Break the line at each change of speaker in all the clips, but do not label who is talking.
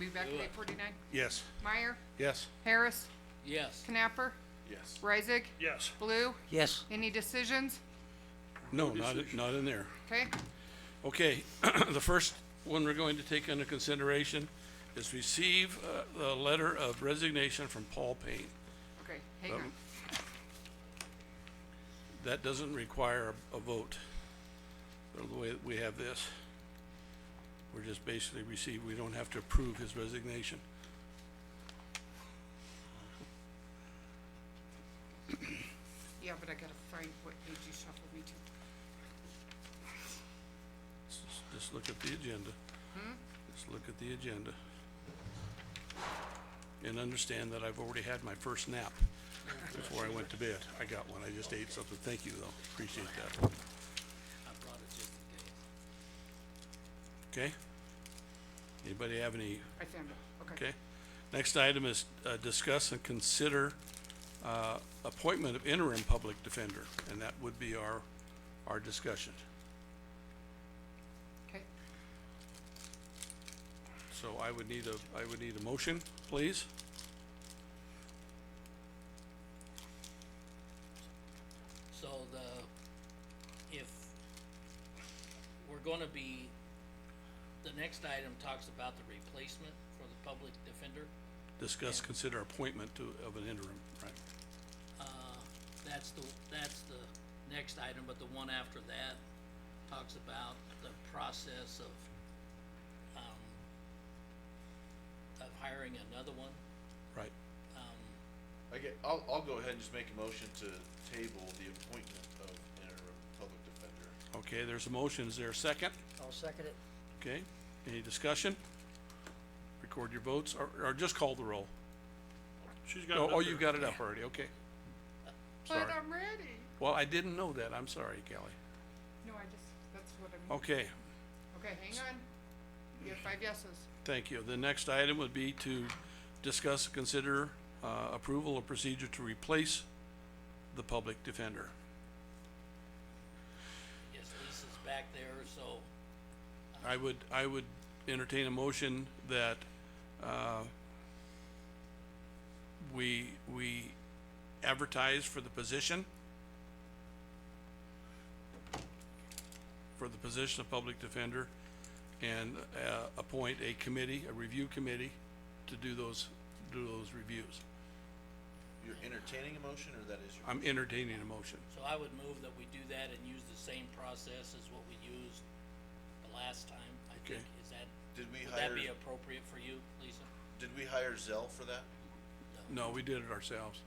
Move back to eight forty-nine.
Yes.
Meyer,
Yes.
Harris,
Yes.
Knapper,
Yes.
Reisig,
Yes.
Blue.
yes,
Any decisions?
No, not, not in there.
Okay,
Okay, the first one we're going to take under consideration is receive, uh, the letter of resignation from Paul Payne.
okay, hang on.
That doesn't require a vote, uh, the way that we have this. We're just basically receive, we don't have to approve his resignation.
Yeah, but I gotta find what page you shuffled me to.
Just- Just look at the agenda. Just look at the agenda. And understand that I've already had my first nap before I went to bed. I got one, I just ate something. Thank you, though, appreciate that.
I brought it just in case.
Okay? Anybody have any,
I found it, okay.
okay? Next item is, uh, discuss and consider, uh, appointment of interim public defender, and that would be our, our discussion.
Okay.
So I would need a, I would need a motion, please.
So the, if we're gonna be, the next item talks about the replacement for the public defender.
Discuss, consider appointment to, of an interim, right?
That's the, that's the next item, but the one after that talks about the process of, um, of hiring another one.
Right.
I get, I'll, I'll go ahead and just make a motion to table the appointment of interim public defender.
Okay, there's a motion. Is there a second?
I'll second it,
Okay, any discussion? Record your votes or, or just call the roll.
She's got it
Oh,
up
oh,
there.
you've got it up already. Okay.
But
Sorry.
I'm ready.
Well, I didn't know that. I'm sorry, Kelly.
No, I just, that's what I'm,
Okay,
okay, hang on. You have five yeses.
thank you. The next item would be to discuss, consider, uh, approval of procedure to replace the public defender.
Yes, Lisa's back there, so
I would, I would entertain a motion that, uh, we, we advertise for the position for the position of public defender and, uh, appoint a committee, a review committee to do those, do those reviews.
You're entertaining a motion, or that is your?
I'm entertaining a motion.
So I would move that we do that and use the same process as what we used the last time, I think,
Okay.
is that,
Did we
would that
hire,
be appropriate for you, Lisa?
did we hire Zell for that?
No, we did it ourselves.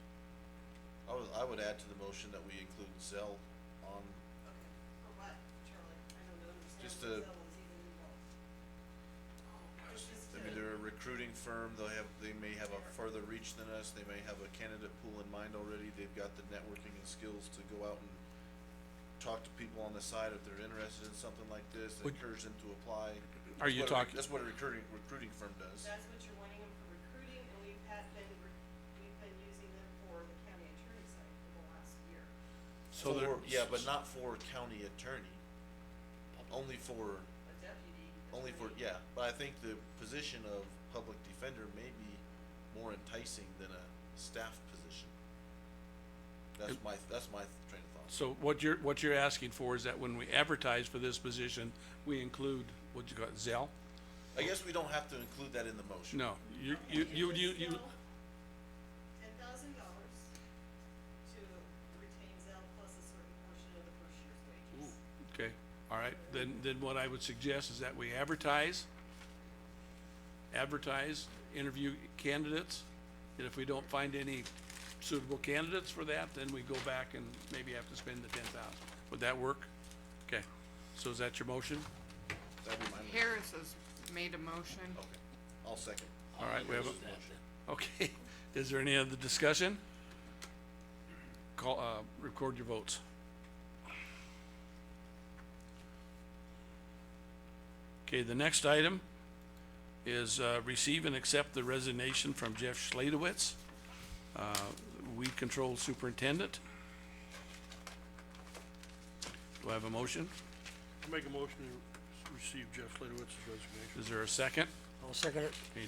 I would, I would add to the motion that we include Zell on,
For what, Charlie? I don't understand.
Just
what
a-
Zell was even involved. It's just
I mean,
a-
they're a recruiting firm, they'll have, they may have a further reach than us, they may have a candidate pool in mind already, they've got the networking and skills to go out and talk to people on the side if they're interested in something like this,
Would-
encourage them to apply.
Are you
That's what a rec-
talking-
That's what a recruiting, recruiting firm does.
That's what you're wanting them for recruiting, and we've had been, re- we've been using them for the county attorney side for the last year.
So there-
For- Yeah, but not for county attorney, only for,
A deputy.
only for,
attorney.
yeah, but I think the position of public defender may be more enticing than a staff position. That's my, that's my train of thought.
So what you're, what you're asking for is that when we advertise for this position, we include, what you got, Zell?
I guess we don't have to include that in the motion.
No, you, you, you, you, you,
Ten thousand dollars to retain Zell plus a certain portion of the first year's wages.
okay, all right, then, then what I would suggest is that we advertise, advertise, interview candidates, and if we don't find any suitable candidates for that, then we go back and maybe have to spend the ten thousand. Would that work? Okay, so is that your motion?
That'd be my motion.
Harris has made a motion.
Okay, I'll second.
All right, we have,
Is
a-
that the-
okay, is there any other discussion? Call, uh, record your votes. Okay, the next item is, uh, receive and accept the resignation from Jeff Schladewitz, uh, weed control superintendent. Do I have a motion?
Make a motion to receive Jeff Ladowitz's resignation.
Is there a second?
I'll second it,
Any